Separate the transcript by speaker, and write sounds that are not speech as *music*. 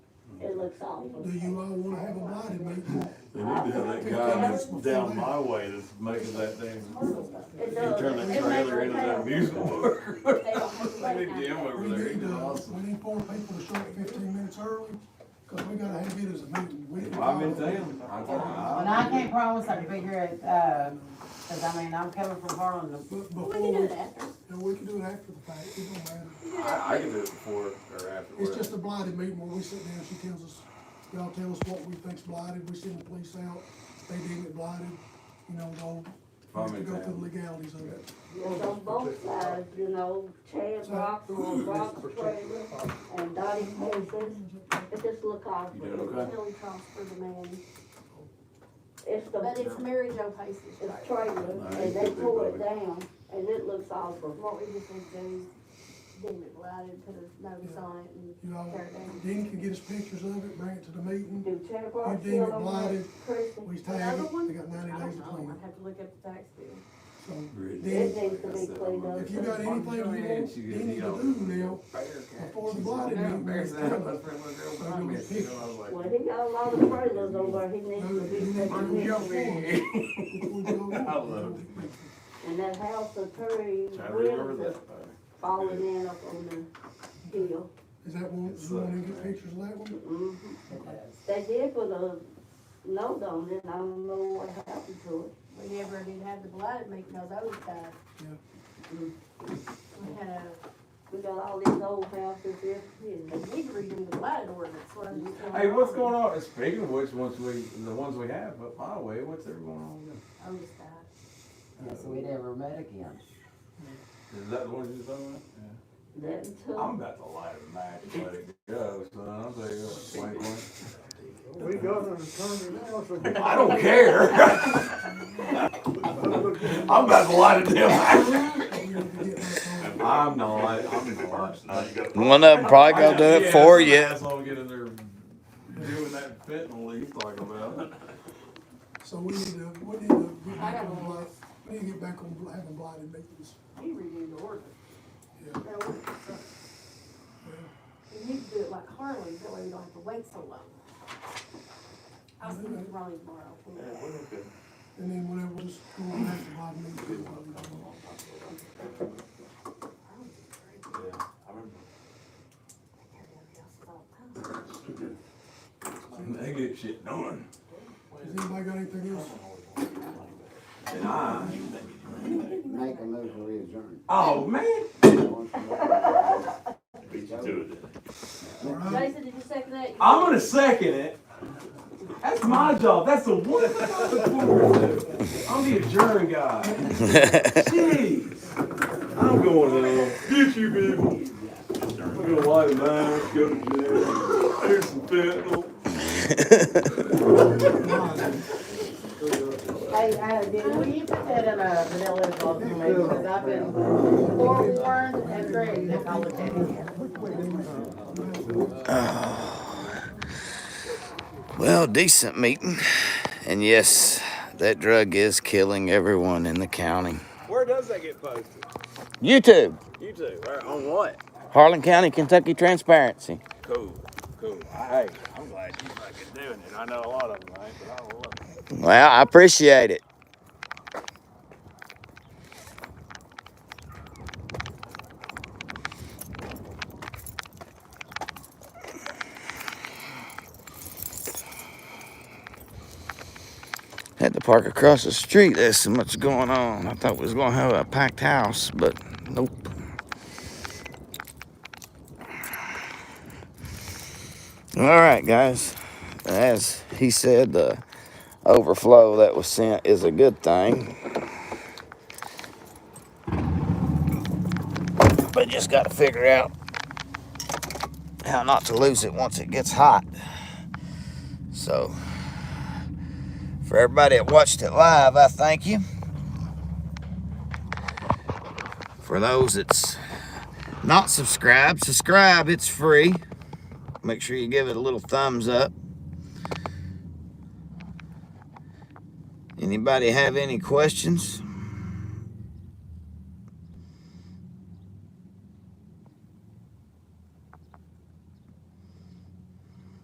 Speaker 1: looks awful.
Speaker 2: Do you all wanna have a body
Speaker 3: *laughs*
Speaker 2: meeting?
Speaker 3: They need to have that guy that's down my way that's making that thing,
Speaker 1: It
Speaker 3: he
Speaker 1: does.
Speaker 3: turned
Speaker 1: It
Speaker 3: that
Speaker 1: makes
Speaker 3: trailer into
Speaker 1: hotel.
Speaker 3: that amusement park.
Speaker 1: They don't have to
Speaker 3: I
Speaker 1: wait
Speaker 3: need Jim
Speaker 1: now.
Speaker 3: over
Speaker 2: We
Speaker 3: there,
Speaker 2: need,
Speaker 3: he's
Speaker 2: uh,
Speaker 3: awesome.
Speaker 2: we need four people to show up fifteen minutes early, cause we gotta have it as a meeting. We didn't
Speaker 3: I'm in
Speaker 2: follow-
Speaker 3: town, I think,
Speaker 4: And
Speaker 3: I-
Speaker 4: I can't promise I can be here at, uh 'cause cause I mean, I'm coming from Harlan to
Speaker 2: But
Speaker 1: We can do
Speaker 2: before,
Speaker 1: it after.
Speaker 2: yeah, we can do it after the fact, it don't matter.
Speaker 3: I, I can do it before or
Speaker 2: It's just
Speaker 3: afterwards.
Speaker 2: a blighted meeting where we sit down, she tells us, y'all tell us what we think's blighted, we send the police out, they deem it blighted, you know, go,
Speaker 3: If
Speaker 2: we have
Speaker 3: I'm
Speaker 2: to
Speaker 3: in
Speaker 2: go through the
Speaker 3: town.
Speaker 2: legalities of it.
Speaker 1: It's on both sides, you know, Chad Brock, or Brock's trailer, and Dottie Casey's. It just look awful.
Speaker 3: You doing
Speaker 1: It's
Speaker 3: okay?
Speaker 1: really cost for the man. It's the,
Speaker 5: But
Speaker 1: it's
Speaker 5: it's Mary Jo Pace's trailer.
Speaker 1: trailer, and they tore it down, and it looks awful.
Speaker 5: What we just need to do is deem it blighted, put a notice on it and
Speaker 2: You know,
Speaker 5: tear it down.
Speaker 2: Dean can get us pictures of it, bring it to the meeting,
Speaker 1: Do Chad Brock
Speaker 2: You deem it
Speaker 1: still on
Speaker 2: blighted.
Speaker 1: that Christie?
Speaker 2: we tag
Speaker 5: Another
Speaker 2: it,
Speaker 5: one?
Speaker 2: they got
Speaker 5: I
Speaker 2: ninety days
Speaker 5: don't
Speaker 2: to
Speaker 5: know,
Speaker 2: clean
Speaker 5: I'd have to look up the tax bill.
Speaker 2: it, so.
Speaker 3: Really?
Speaker 2: Dean,
Speaker 1: It needs to be cleaned up.
Speaker 2: If you got anything you want,
Speaker 3: You
Speaker 2: Dean to do now,
Speaker 3: *laughs*
Speaker 2: before the blighted
Speaker 3: Yeah,
Speaker 2: meeting,
Speaker 3: embarrassing. I
Speaker 2: tell
Speaker 3: was friends with a girl behind me, you know, I was like,
Speaker 1: Well, he got a lot of trailers over, he needs to be
Speaker 2: No, you need
Speaker 1: taken
Speaker 2: to
Speaker 3: I'm
Speaker 1: care of.
Speaker 3: joking.
Speaker 2: them.
Speaker 3: *laughs* I love it.
Speaker 1: And that house of Terry
Speaker 3: Try to remember
Speaker 1: Williams
Speaker 3: that.
Speaker 1: is falling in up on the hill.
Speaker 2: Is that one,
Speaker 3: It's
Speaker 2: you wanna
Speaker 3: like-
Speaker 2: get pictures of that one?
Speaker 1: Mhm. They did put a note on it, and I don't know what happened to it.
Speaker 5: We never did have the blighted meeting, those old times.
Speaker 2: Yeah.
Speaker 5: We had a,
Speaker 1: We got all these old houses here,
Speaker 5: we
Speaker 1: and
Speaker 5: need to redo the blighted ordinance, what I'm just telling
Speaker 3: Hey, what's
Speaker 5: you.
Speaker 3: going on, speaking of which, once we, the ones we have, but by the way, what's ever going on with
Speaker 5: Oh, just that.
Speaker 4: Yes, we never met again.
Speaker 3: them? Is that the one you're talking
Speaker 1: that
Speaker 3: about? Yeah. I'm
Speaker 1: took,
Speaker 3: about to light a match, and let it go, son, I'll tell you what, wink, wink.
Speaker 6: We got an attorney now,
Speaker 3: *laughs*
Speaker 6: so.
Speaker 3: I don't care. *laughs* I'm about to light a damn match. I'm not, I'm not.
Speaker 7: One of them probably gonna do it for you.
Speaker 3: That's all get in there doing that fentanyl he's talking about.
Speaker 2: So we need to, we need to get
Speaker 5: I
Speaker 2: back
Speaker 5: got
Speaker 2: on
Speaker 5: one.
Speaker 2: blight, we need to get back on bl- having blighted meetings.
Speaker 5: You redo the ordinance.
Speaker 2: Yeah.
Speaker 5: That ordinance, uh, We need to do it like Harley, that way we don't have to wait so long. I'll speak to Ronnie tomorrow.
Speaker 2: And then whenever we'll just go on after blighted meetings. we'll do it.
Speaker 3: They get shit done.
Speaker 2: Has anybody got anything else?
Speaker 3: And I,
Speaker 8: Make a move to adjourn.
Speaker 3: oh, man.
Speaker 2: All right.
Speaker 5: Jason, did you second that?
Speaker 3: I'm gonna second it. That's my job. That's the one thing I'm looking forward to. I'm the adjourn guy. *laughs* Jeez. I'm going to get you people. I'm gonna light a match, go to jail, here's some fentanyl.
Speaker 4: Hey, uh, did, will you put that in a vanilla envelope for me, cause I've been forewarned and threatened if I look at it.
Speaker 7: Well, decent meeting. And yes, that drug is killing everyone in the county.
Speaker 9: Where does that get posted?
Speaker 7: YouTube,
Speaker 9: YouTube. Where, on what?
Speaker 7: Harlan County, Kentucky Transparency.
Speaker 9: Cool. Cool. Hey, I'm glad you fucking doing it. I know a lot of them ain't, but I love it.
Speaker 7: Well, I appreciate it. At the park across the street, there's so much going on. I thought we was gonna have a packed house, but nope. All right, guys. As he said, the overflow that was sent is a good thing. But just got to figure out how not to lose it once it gets hot. So, for everybody that watched it live, I thank you. For those that's not subscribed, subscribe, it's free. Make sure you give it a little thumbs up. Anybody have any questions?